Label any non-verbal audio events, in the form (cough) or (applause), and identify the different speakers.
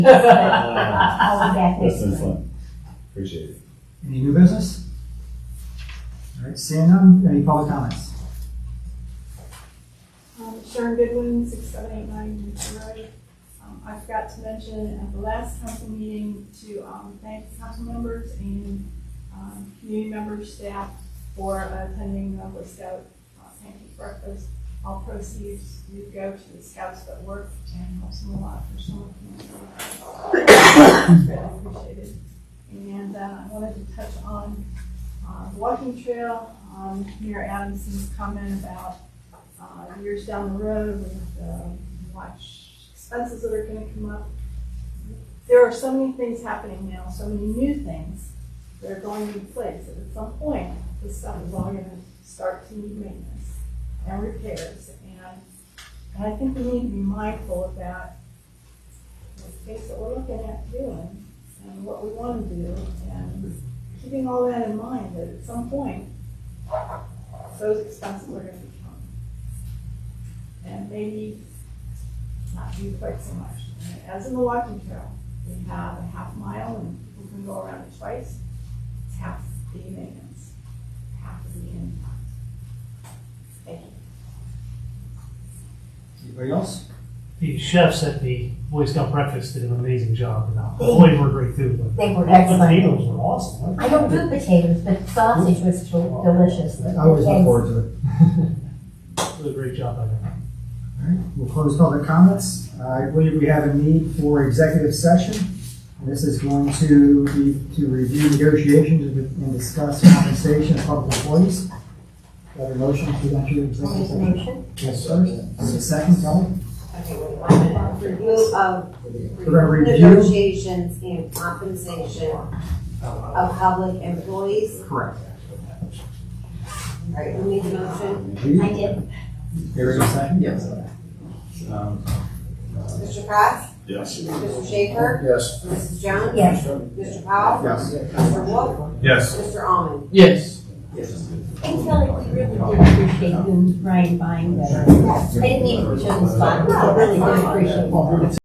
Speaker 1: That's
Speaker 2: I'll be back next
Speaker 1: been
Speaker 2: month.
Speaker 1: fun. Appreciate it.
Speaker 3: Any new business? All right, seeing none, any public comments?
Speaker 4: Um, Sharon Goodwin, six seven eight nine Newton Road. Um, I forgot to mention at the last council meeting to, um, thank council members and, um, community members, staff for attending the Boy Scout uh, pancake breakfast. All proceeds do go to the scouts that work and helps them a lot for some of them. (coughs) Really appreciated. And, uh, I wanted to touch on, uh, the walking trail, um, Mayor Adamson's comment about uh, years down the road with, um, watch expenses that are gonna come up. There are so many things happening now, so many new things that are going to place, and at some point, this stuff is all gonna start to need maintenance and repairs, and, and I think we need to be mindful of that, the space that we're looking at doing, and what we wanna do, and keeping all that in mind, that at some point, those expenses are gonna be coming and maybe not do quite so much. And As in the walking trail, we have a half mile and we can go around it twice. It's half the maintenance, half the impact. Thank you.
Speaker 3: Anybody else?
Speaker 5: The chefs at the Boy Scout breakfast did an amazing job. and Boy, were great too. but
Speaker 2: They were
Speaker 5: The
Speaker 2: excellent.
Speaker 5: potatoes were awesome. weren't they?
Speaker 2: I don't do potatoes, but sausage was del- delicious.
Speaker 3: I always look forward to it.
Speaker 5: It was a great job by them.
Speaker 3: All right, we'll close public comments. I believe we have a need for executive session. This is going to be to review negotiations and discuss compensation of public employees. Got a motion to enter executive session?
Speaker 2: Information.
Speaker 3: Yes, sir. Is it second, Kelly?
Speaker 6: Okay, wait, one minute. Review of
Speaker 3: We're gonna review.
Speaker 6: um, negotiations and compensation of public employees.
Speaker 3: Correct.
Speaker 6: All right, who made the motion?
Speaker 2: I
Speaker 3: Here
Speaker 2: did.
Speaker 3: is a second? Yes.
Speaker 6: Mr. Cox?
Speaker 1: Yes.
Speaker 6: Mr. Schaefer?
Speaker 3: Yes.
Speaker 6: Mrs. Jones?
Speaker 2: Yes.
Speaker 6: Mr. Powell?
Speaker 3: Yes.
Speaker 6: Mr. Wolf?
Speaker 1: Yes.
Speaker 6: Mr. Almond?
Speaker 2: And Kelly, we really did appreciate you and Ryan buying that. I didn't mean to show the spot, but I really did appreciate it.